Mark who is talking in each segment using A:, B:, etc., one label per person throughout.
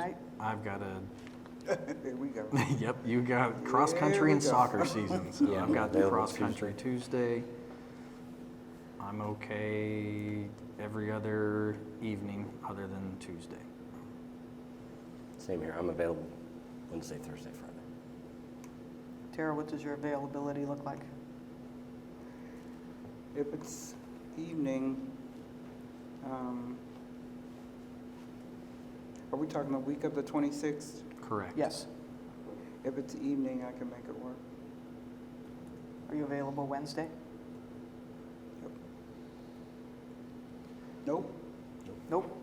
A: Right?
B: I've got a,
A: There we go.
B: yep, you got cross
A: There we
B: country and
A: go.
B: soccer season, so
C: Yeah,
B: I've
C: I'm
B: got the
C: available
B: cross country Tuesday. I'm okay every other evening other than Tuesday.
C: Same here. I'm available Wednesday, Thursday, Friday.
D: Tara, what does your availability look like?
A: If it's evening, um, are we talking the week of the 26th?
B: Correct.
D: Yes.
A: If it's evening, I can make it work.
D: Are you available Wednesday?
A: Yep. Nope,
D: Nope.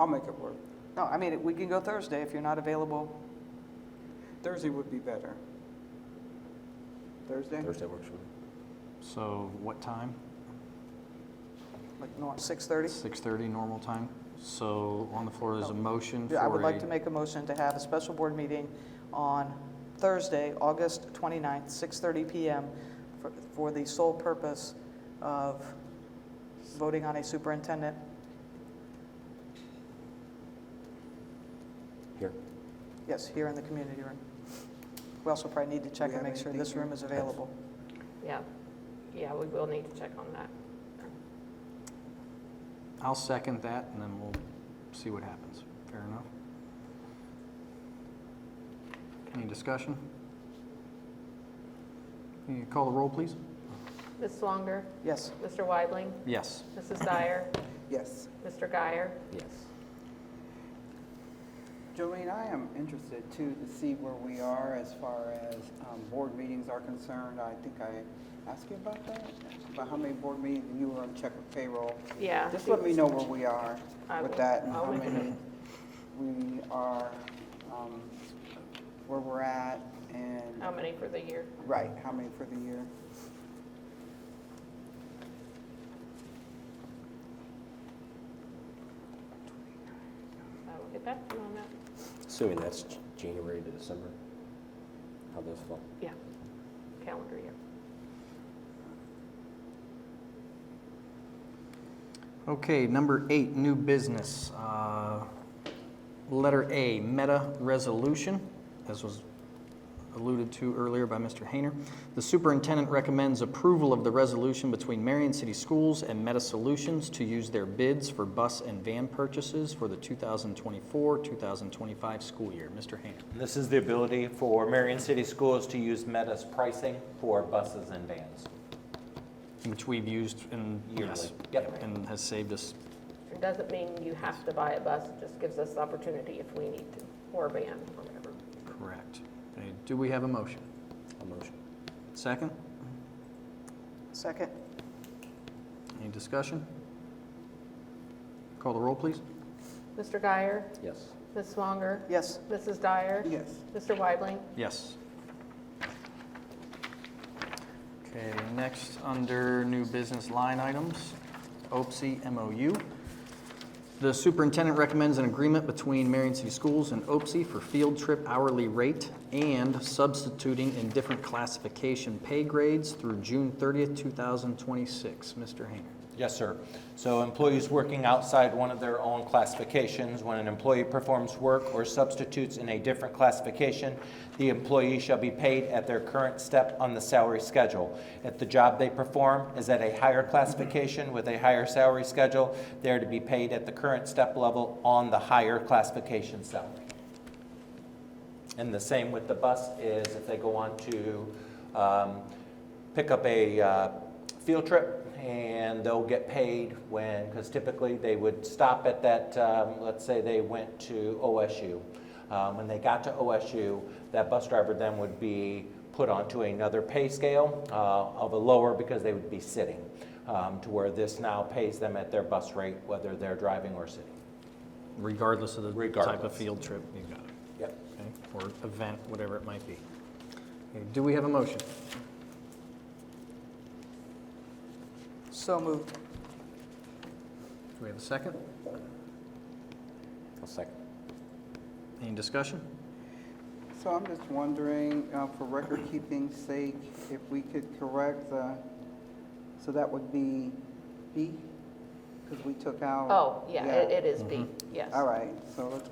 A: I'll make it work.
D: No, I mean, we can go Thursday if you're not available.
A: Thursday would be better. Thursday?
C: Thursday works for me.
B: So what time?
D: Like, no, 6:30?
B: Six thirty normal time? So on the floor is a motion for
D: Oh. I would like
B: a-
D: to make a motion to have a special board meeting on Thursday, August 29th, 6:30 PM, for- for the sole purpose of voting on a superintendent.
C: Here.
D: Yes, here in the community room. We also probably need to check
A: We
D: and
A: have
D: make sure
A: anything
D: this
A: here?
D: room is available.
E: Yeah, yeah, we will need to check on that.
B: I'll second that and then we'll see what happens. Fair enough. Any discussion? Can you call the roll, please?
E: Ms. Swanger,
D: Yes.
E: Mr. Weidling,
B: Yes.
E: Mrs. Dyer,
A: Yes.
E: Mr. Guyer.
C: Yes.
A: Jolene, I am interested too to see where we are as far as um, board meetings are concerned. I think I asked you about that, about how many board meetings and you were on check with payroll.
E: Yeah.
A: Just let me know where we are
E: I
A: with
E: will.
A: that and
E: I'll
A: how
E: let you
A: many we are, um, where we're at and,
E: How many for the year?
A: right, how many for the year.
E: I will get back to you on that.
C: Assuming that's J- January to December. How those fall.
E: Yeah, calendar year.
B: Okay, number eight, new business. Uh, Letter A, meta resolution, as was alluded to earlier by Mr. Hayner. The superintendent recommends approval of the resolution between Marion City Schools and Meta Solutions to use their bids for bus and van purchases for the 2024-2025 school year. Mr. Hayner.
F: And This is the ability for Marion City Schools to use Meta's pricing for buses and vans.
B: Which we've used in, yes.
F: Yearly. Yep.
B: And has saved us
E: It doesn't mean you have to buy a bus, it just gives us the opportunity if we need to, or a van, or whatever.
B: correct. Okay, Do we have a motion?
C: A motion.
B: Second?
D: Second?
B: Any discussion? Call the roll, please.
E: Mr. Guyer,
C: Yes.
E: Ms. Swanger,
D: Yes.
E: Mrs. Dyer,
A: Yes,
E: Mr. Weidling,
B: Yes. Okay, next, under new business line items, OPSI MOU. The superintendent recommends an agreement between Marion City Schools and OPSI E for field trip hourly rate and substituting in different classification pay grades through June 30th, 2026. Mr. Hayner.
F: Yes, sir. So employees working outside one of their own classifications, when an employee performs work or substitutes in a different classification, the employee shall be paid at their current step on the salary schedule. If the job they perform is at a higher classification with a higher salary schedule, they are to be paid at the current step level on the higher classification salary. And the same with the bus is if they go on to um, pick up a uh, field trip and they'll get paid when, because typically they would stop at that, um, let's say they went to OSU. Um, When they got to OSU, that bus driver then would be put onto another pay scale uh, of a lower because they would be sitting um, to where this now pays them at their bus rate, whether they're driving or sitting.
B: Regardless of the type of
F: Regardless.
B: field trip, you got it.
F: Yep.
B: okay, or event, whatever it might be. Okay, Do we have a motion?
D: So moved.
B: Do we have a second?
C: I'll second.
B: Any discussion?
A: so I'm just wondering, uh, for record keeping's sake, if we could correct the, so that would be B? Because we took out.
E: Oh, yeah, it it is B, yes.
A: All right, so let's